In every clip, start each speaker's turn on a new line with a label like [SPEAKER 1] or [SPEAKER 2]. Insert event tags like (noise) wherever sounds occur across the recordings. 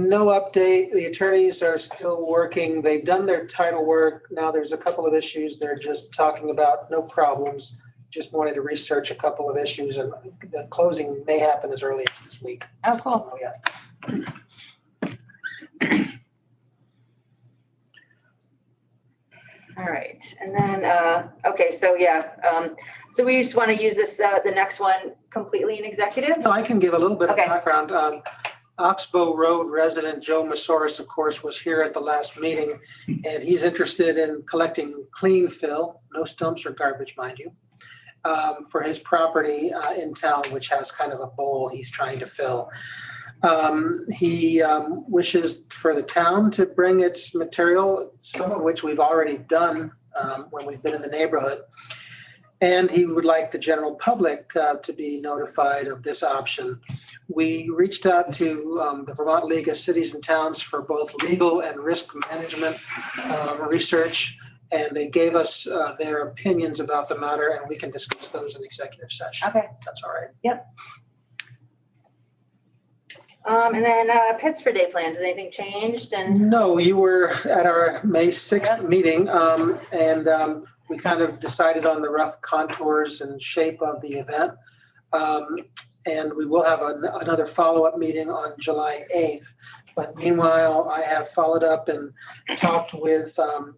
[SPEAKER 1] No update. The attorneys are still working. They've done their title work. Now there's a couple of issues they're just talking about, no problems. Just wanted to research a couple of issues and the closing may happen as early as this week.
[SPEAKER 2] Oh, cool.
[SPEAKER 1] Oh, yeah.
[SPEAKER 2] All right, and then, uh, okay, so yeah, um, so we just want to use this, uh, the next one completely in executive?
[SPEAKER 1] No, I can give a little bit of
[SPEAKER 2] Okay.
[SPEAKER 1] background. Um, Oxbow Road resident Joe Masoris, of course, was here at the last meeting, and he's interested in collecting clean fill, no stumps or garbage, mind you, um, for his property uh, in town, which has kind of a bowl he's trying to fill. Um, He um, wishes for the town to bring its material, some of which we've already done um, when we've been in the neighborhood, and he would like the general public uh, to be notified of this option. We reached out to um, the Vermont League of Cities and Towns for both legal and risk management uh, research, and they gave us uh, their opinions about the matter, and we can discuss those in executive session.
[SPEAKER 2] Okay,
[SPEAKER 1] That's all right.
[SPEAKER 2] um, and then, uh, pits for day plans, has anything changed and,
[SPEAKER 1] No, you were at our May 6th meeting, um, and um, we kind of decided on the rough contours and shape of the event. Um, And we will have an- another follow-up meeting on July 8th. But meanwhile, I have followed up and talked with, um,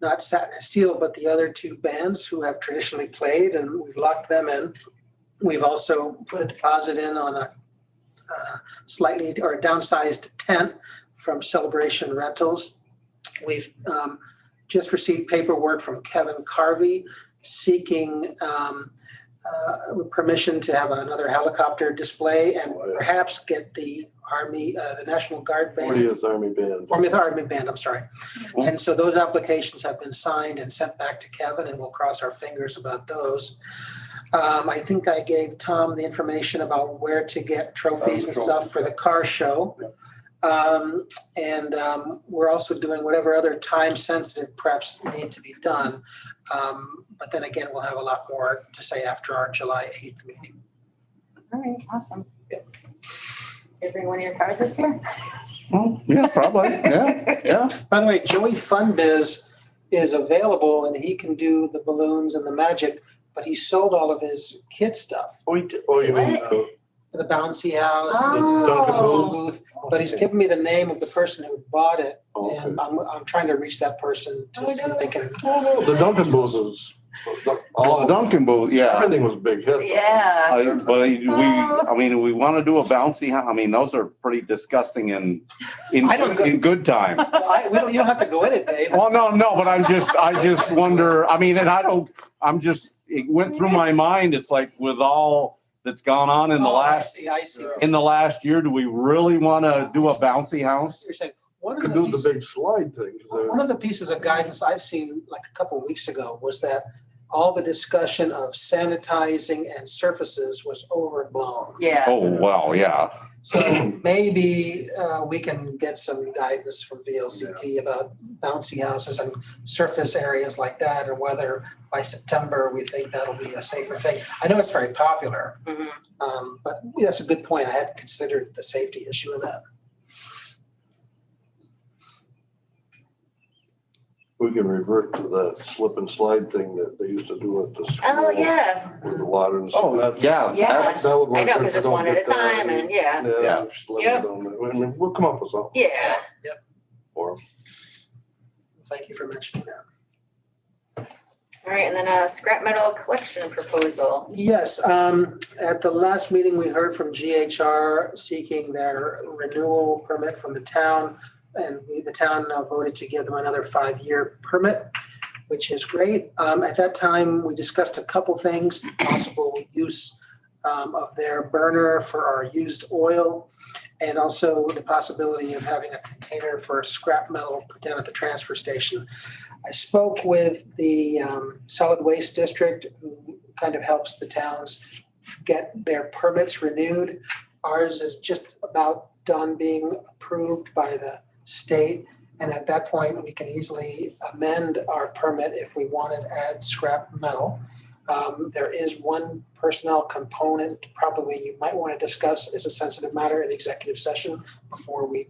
[SPEAKER 1] not Satin and Steel, but the other two bands who have traditionally played, and we've locked them in. We've also put a deposit in on a uh, slightly, or a downsized tent from Celebration Rentals. We've um, just received paperwork from Kevin Carvey seeking um, uh, permission to have another helicopter display and perhaps get the Army, uh, the National Guard Band,
[SPEAKER 3] Fortieth Army Band.
[SPEAKER 1] 40th Army Band, I'm sorry. And so those applications have been signed and sent back to Kevin, and we'll cross our fingers about those. Um, I think I gave Tom the information about where to get trophies and
[SPEAKER 3] Um,
[SPEAKER 1] stuff for the car show. Um, and, um, we're also doing whatever other time-sensitive preps need to be done. Um, but then again, we'll have a lot more to say after our July eighth meeting.
[SPEAKER 2] all right, awesome. Did bring one of your cars this year?
[SPEAKER 3] Yeah, probably, yeah, yeah.
[SPEAKER 1] By the way, Joey Funbiz is available and he can do the balloons and the magic, but he sold all of his kid stuff.
[SPEAKER 3] Oh, you, oh, you mean,
[SPEAKER 2] What?
[SPEAKER 3] oh,
[SPEAKER 1] the bouncy house, the photo
[SPEAKER 2] Oh,
[SPEAKER 1] booth, but he's given me the name of the person who bought it,
[SPEAKER 3] Oh, okay.
[SPEAKER 1] and I'm, I'm trying to reach that person
[SPEAKER 2] Oh,
[SPEAKER 1] to see if they can.
[SPEAKER 3] The Duncan booth was,
[SPEAKER 4] Oh, Duncan Booth, yeah.
[SPEAKER 3] everything was a big hit.
[SPEAKER 2] yeah.
[SPEAKER 4] I, but I- we, I mean, we want to do a bouncy, hou- I mean, those are pretty disgusting in, in,
[SPEAKER 1] I don't go-
[SPEAKER 4] in good times.
[SPEAKER 1] Well, I, we don't, you don't have to go in it,
[SPEAKER 4] (laughs)
[SPEAKER 1] Dave.
[SPEAKER 4] Oh, no, no, but I'm just, I just wonder, I mean, and I don't, I'm just, it went through my mind, it's like with all that's gone on in the
[SPEAKER 1] Oh, I
[SPEAKER 4] last,
[SPEAKER 1] see, I see. what
[SPEAKER 4] in the last year, do we really want to do a bouncy house?
[SPEAKER 1] You're saying, one of
[SPEAKER 3] Could
[SPEAKER 1] the
[SPEAKER 3] do the
[SPEAKER 1] pieces,
[SPEAKER 3] big slide thing. 'cause they're-
[SPEAKER 1] one of the pieces of guidance I've seen like a couple of weeks ago was that all the discussion of sanitizing and surfaces was overblown.
[SPEAKER 2] Yeah,
[SPEAKER 4] Oh, wow, yeah.
[SPEAKER 1] So maybe uh, we can get some guidance from VLCT about bouncy houses and surface areas like that, or whether by September, we think that'll be a safer thing. I know it's very popular,
[SPEAKER 2] Mhm.
[SPEAKER 1] um, but that's a good point. I hadn't considered the safety issue of that.
[SPEAKER 3] We can revert to that slip and slide thing that they used to do at the school.
[SPEAKER 2] oh, yeah,
[SPEAKER 3] With the water and.
[SPEAKER 4] Oh,
[SPEAKER 3] stuff.
[SPEAKER 4] yeah,
[SPEAKER 2] Yeah.
[SPEAKER 4] that's,
[SPEAKER 3] That would work
[SPEAKER 2] I know,
[SPEAKER 3] if
[SPEAKER 2] because it's
[SPEAKER 3] you don't
[SPEAKER 2] one at a
[SPEAKER 3] get that.
[SPEAKER 2] time and, yeah,
[SPEAKER 3] Yeah.
[SPEAKER 4] Yeah.
[SPEAKER 3] slip it
[SPEAKER 2] Yep.
[SPEAKER 3] down there. I mean, We'll come up with something
[SPEAKER 2] yeah.
[SPEAKER 3] for 'em.
[SPEAKER 1] Thank you for mentioning that.
[SPEAKER 2] All right, and then uh scrap metal collection proposal.
[SPEAKER 1] Yes, um, at the last meeting, we heard from GHR seeking their renewal permit from the town. And we- the town uh, voted to give them another five-year permit, which is great. Um, at that time, we discussed a couple things, possible use um, of their burner for our used oil. And also the possibility of having a container for scrap metal put down at the transfer station. I spoke with the, um, solid waste district who kind of helps the towns get their permits renewed. Ours is just about done being approved by the state. And at that point, we can easily amend our permit if we wanted to add scrap metal. Um, There is one personnel component probably you might want to discuss as a sensitive matter in executive session before we